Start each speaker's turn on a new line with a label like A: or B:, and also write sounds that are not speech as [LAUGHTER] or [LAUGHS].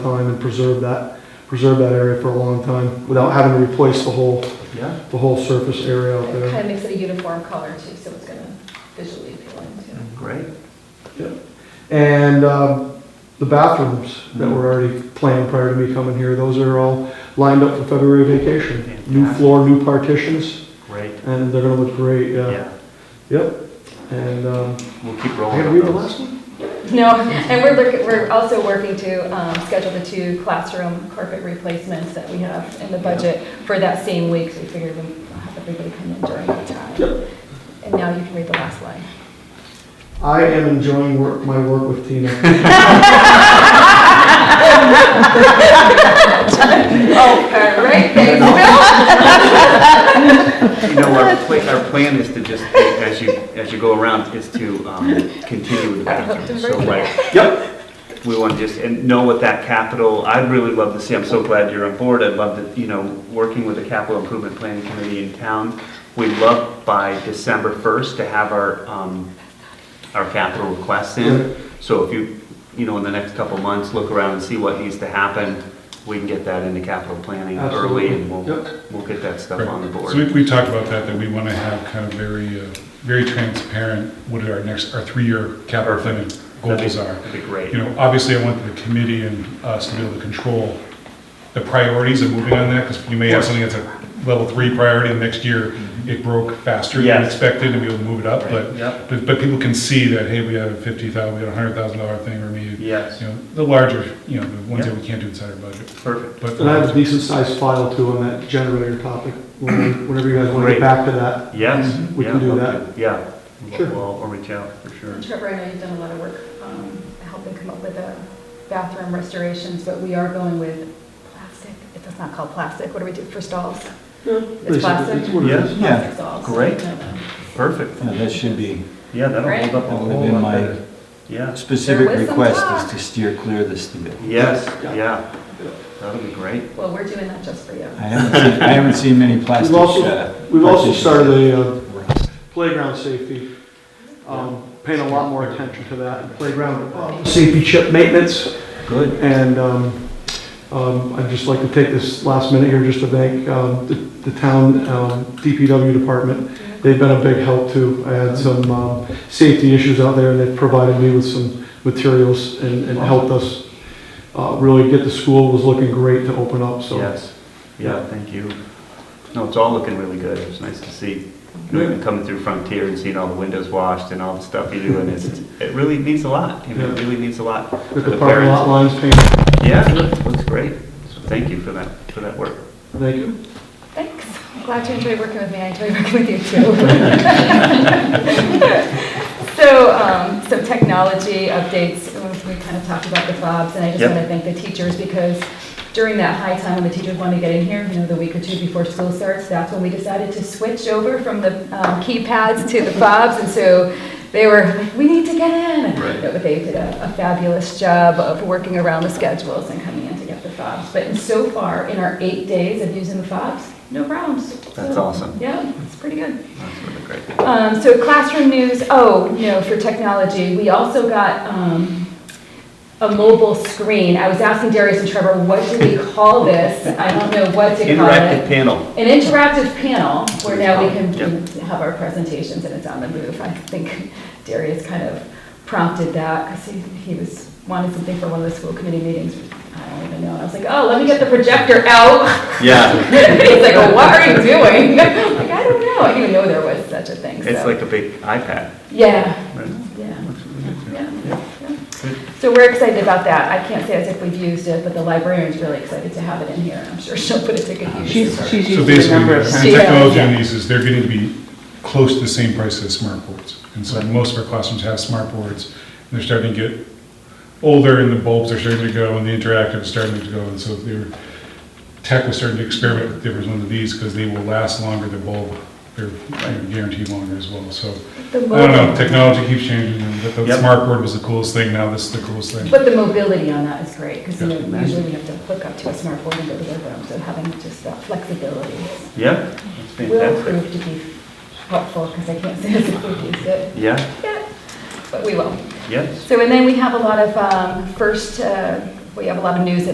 A: time and preserve that, preserve that area for a long time without having to replace the whole,
B: Yeah,
A: the whole surface area out
C: It
A: there.
C: kind of makes it a uniform color too, so it's gonna visually appealing too.
B: great.
A: And um, the bathrooms that were already planned prior to me coming here, those are all lined up for February vacation. New
B: Fantastic.
A: floor, new partitions,
B: Great.
A: and they're gonna look great, yeah.
B: Yeah,
A: Yep. And, um,
B: we'll keep
A: I
B: rolling.
A: gotta
B: on
A: read the
B: those.
A: last one?
C: [LAUGHS] No, and we're looking, we're also working to um, schedule the two classroom carpet replacements that we have in the budget for that same week, so we figured we'd have everybody come in during that time. And now you can read the last line. [LAUGHS]
A: I am enjoying work, my work with
B: [LAUGHS]
A: Tina.
C: Oh, all right, thanks, Bill.
B: You know, our plan, our plan is to just, as you, as you go around, is to um, continue with the
C: I hope
B: bathroom.
C: to
B: So,
C: break
B: right, yep. We want to just, and know what that capital, I'd really love to see, I'm so glad you're on board. I'd love to, you know, working with the capital improvement planning committee in town. We'd love by December 1st to have our, um, our capital requests in. So if you, you know, in the next couple of months, look around and see what needs to happen, we can get that into capital planning early and we'll,
A: Yep.
B: we'll get that stuff
D: Right.
B: on the board.
D: So we, we talked about that, that we want to have kind of very, uh, very transparent what our next, our three-year capital planning
B: That'd
D: goals
B: be-
D: are.
B: That'd be great.
D: You know, obviously, I want the committee and us to be able to control the priorities and moving on that, because you may have something that's a level three priority, and next year, it broke faster than
B: Mm-hmm. Yes.
D: expected, and we will move it up, but,
B: Yep.
D: but- but people can see that, hey, we had a fifty thousand, we had a hundred thousand dollar thing, or maybe,
B: Yes,
D: you know, the larger, you know, the ones
B: Yeah.
D: that we can't do inside our budget.
B: perfect.
D: But
A: And I have a decent sized file too on that generator topic, When- whenever you guys wanna get
B: Great.
A: back to that.
B: Yes.
A: We can
B: yeah,
A: do
B: okay,
A: that.
B: Yeah.
A: Sure.
B: We'll, we'll reach out for sure.
C: Trevor, I know you've done a lot of work um, helping come up with the bathroom restorations, but we are going with plastic. It does not call plastic. What do we do for stalls?
A: It's
C: plastic?
A: It's what it is.
E: Yeah.
C: Plastic stalls.
B: Great.
C: No, no.
B: Perfect.
E: Yeah, that should be,
B: Yeah, that'll hold up a
E: that would have
B: whole
E: been
B: lot
E: my
B: better. Yeah.
E: specific
C: There was some
E: request
C: talk.
E: is to steer clear of this deal.
B: Yes,
A: Yeah.
B: yeah. That'll be great.
C: Well, we're doing that just for you.
E: I haven't seen, I haven't seen many plastic.
A: We've also,
E: uh,
A: we've also
E: partitions.
A: started a uh, playground safety, um, paying a lot more attention to that, playground uh, safety chip maintenance,
B: Good.
A: and um, um, I'd just like to take this last minute here just to thank um, the the town um, DPW department. They've been a big help too. I had some um, safety issues out there, and they've provided me with some materials and and helped us uh, really get the school was looking great to open up, so.
B: Yes. Yeah, thank you. No, it's all looking really good. It was nice to see, you know, even coming through Frontier and seeing all the windows washed and all the stuff you do. And it's, it really means a lot. You know, It
A: Yeah.
B: really means a lot. for
A: With the parking
B: parents.
A: lot lines painted,
B: Yeah, it looks great. So Thank you for that, for that work.
A: thank you.
C: Thanks. I'm glad you enjoyed working with me. I enjoyed working with you too. [LAUGHS] So, um, some technology updates, we kind of talked about the fobs, and I just
B: Yep.
C: want to thank the teachers because during that high time when the teachers want to get in here, you know, the week or two before school starts, that's when we decided to switch over from the um, keypads to the fobs, and so they were like, we need to get in.
B: Right.
C: But they did a a fabulous job of working around the schedules and coming in to get the fobs. But so far, in our eight days of using the fobs, no problems.
B: That's
C: So,
B: awesome.
C: Yeah, it's pretty good.
B: That's really great.
C: Um, so classroom news, oh, you know, for technology, we also got, um, a mobile screen. I was asking Darius and Trevor, what do we call this? I don't know what to call
B: Interactive
C: it.
B: panel.
C: An interactive panel where now we can
B: Yep.
C: have our presentations and it's on the move. I think Darius kind of prompted that because he, he was, wanted something for one of the school committee meetings. I don't even know. And I was like, oh, let me get the projector out. [LAUGHS]
B: Yeah.
C: He's like, well, what are you doing? [LAUGHS] I'm Like, I don't know. I didn't even know there was such a thing, so.
B: It's like a big iPad.
C: Yeah,
B: right?
C: yeah,
B: Looks really good.
C: yeah, yeah.
B: Good.
C: So we're excited about that. I can't say as if we've used it, but the librarian's really excited to have it in here. and I'm sure she'll put it to good use.
F: She's, she's
D: So
F: used it a
D: basically,
F: number of
D: the
F: times.
C: Yeah,
D: technology
C: yeah.
D: on these is they're getting to be close to the same price as smart boards. And so most of our classrooms have smart boards, and they're starting to get older, and the bulbs are starting to go, and the interactive is starting to go, and so their tech was starting to experiment with different ones of these, because they will last longer, the bulb, they're you know, guaranteed longer as well, so.
C: The
D: I don't know,
C: mobile-
D: technology keeps changing, and the- the
B: Yep.
D: smart board was the coolest thing, now this is the coolest thing.
C: But the mobility on that is great, because you
D: Yeah,
C: know,
B: imagine.
C: usually we have to hook up to a smart board and go to their room, so having just that flexibility is-
B: Yeah, that's
C: will
B: fantastic.
C: prove to be helpful, because I can't say as if we've used it
B: Yeah,
C: yet, but we will.
B: yes.
C: So, and then we have a lot of um, first, uh, we have a lot of news